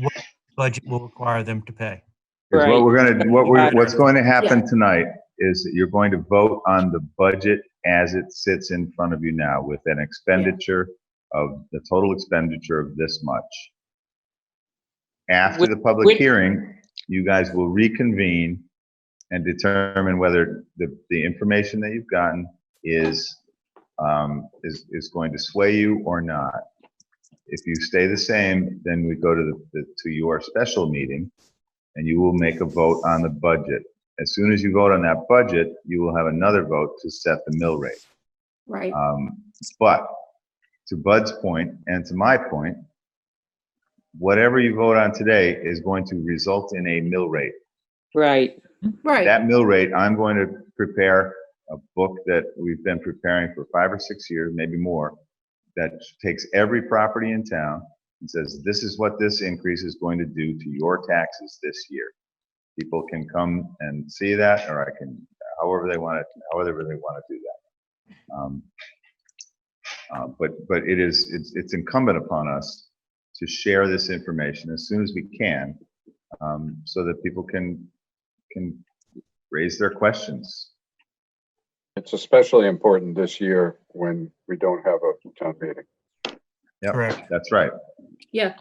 what budget will require them to pay. Because Right. what we're going to, what we're, Right. what's going to happen tonight is that you're going to vote on the budget as it sits in front of you now with an expenditure of, the total expenditure of this much. After Which- the public which- hearing, you guys will reconvene and determine whether the, the information that you've gotten is, um, is, is going to sway you or not. If you stay the same, then we go to the- the, to your special meeting and you will make a vote on the budget. As soon as you vote on that budget, you will have another vote to set the mill rate. Right, Um, but to Bud's point and to my point, whatever you vote on today is going to result in a mill rate. Right, right, That mill rate, I'm going to prepare a book that we've been preparing for five or six years, maybe more, that takes every property in town and says, this is what this increase is going to do to your taxes this year. People can come and see that, or I can, however they want it, however they want to do that. Um, uh, But, but it is, it's, it's incumbent upon us to share this information as soon as we can, um, so that people can, can raise their questions. It's especially important this year when we don't have a town meeting. Yep. Correct. That's right. yeah,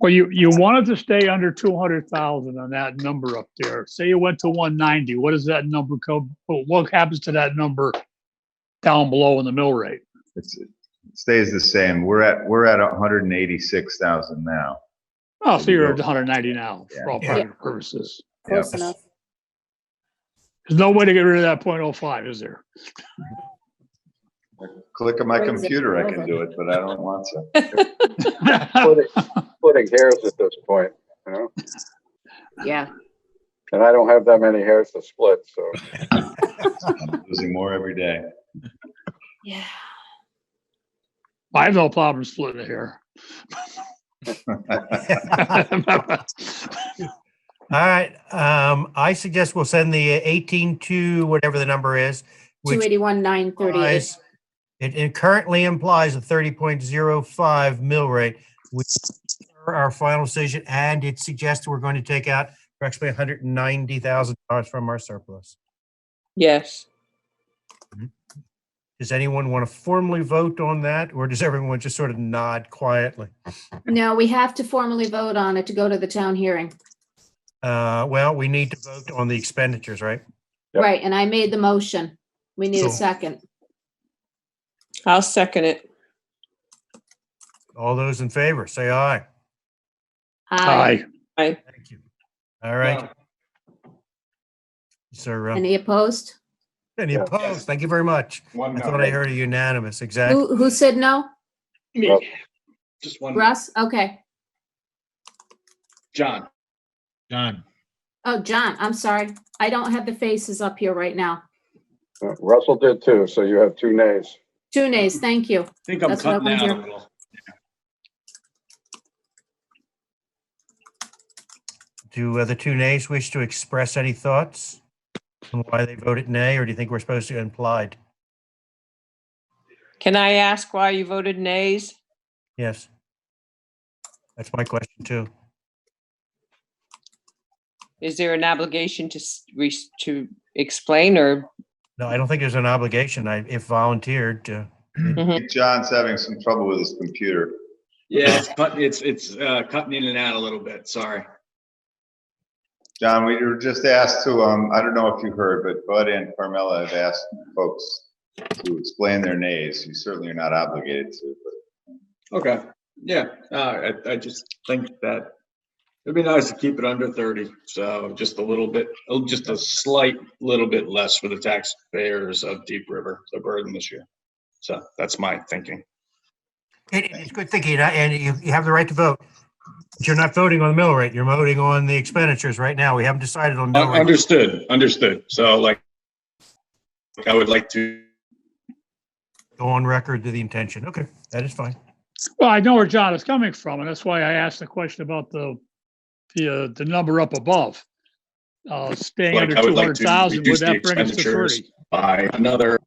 Well, you, you wanted to stay under two hundred thousand on that number up there. Say you went to one ninety, what does that number go, what what happens to that number down below in the mill rate? It's, it stays the same. We're at, we're at hundred and eighty-six thousand now. Oh, so you're at one hundred ninety now for all Yeah. practical purposes. close Yep. enough. There's no way to get rid of that point oh five, is there? Click on my Brings it computer, I can over. do it, but I don't want to. Splitting splitting hairs at this point, you know, Yeah, and I don't have that many hairs to split, so. I'm Losing more every day. yeah. I have no problem splitting it here. All right, um, I suggest we'll send the eighteen to whatever the number is, Two which eighty-one, nine thirty-eight. implies, it, it currently implies a thirty point zero five mill rate, which is our final decision, and it suggests we're going to take out approximately hundred and ninety thousand dollars from our surplus. yes. Does anyone want to formally vote on that, or does everyone just sort of nod quietly? No, we have to formally vote on it to go to the town hearing. Uh, well, we need to vote on the expenditures, right? Yep. Right, and I made the motion. We need a So- second. I'll second it. All those in favor, say aye. Aye. Aye, Thank you. All right. Sir, uh, Any opposed? any opposed? Thank you very much. One I no. thought I heard a unanimous, exactly. Who, who said no? Just one. no. Russ? Okay. John. John. Oh, John, I'm sorry. I don't have the faces up here right now. uh, Russell did too, so you have two nays. Two nays, thank you. I think I'm That's what I cutting out wanna a hear. little. Do uh, the two nays wish to express any thoughts on why they voted nay, or do you think we're supposed to implied? Can I ask why you voted nays? Yes. That's my question too. Is there an obligation to, s- re- to explain or? No, I don't think there's an obligation. I, if volunteered, uh, mm-hmm. I think John's having some trouble with his computer. Yeah, it's cutting, it's, it's, uh, cutting in and out a little bit. Sorry. John, we were just asked to, um, I don't know if you heard, but Bud and Carmella have asked folks to explain their nays. You certainly are not obligated to, but Okay. Yeah, uh, I, I just think that it'd be nice to keep it under thirty. So just a little bit, oh, just a slight little bit less for the taxpayers of Deep River, the burden this year. So that's my thinking. It, it's good thinking, and I- and you, you have the right to vote. But you're not voting on the mill rate, you're voting on the expenditures right now. We haven't decided on mill Un- rate. Understood, understood. So like, I would like to Go on record to the intention. Okay, that is fine. well, I know where John is coming from, and that's why I asked the question about the, the, uh, the number up above. Uh, staying Like, under I two would like hundred to thousand, would reduce the that bring us to expenditures. thirty? buy another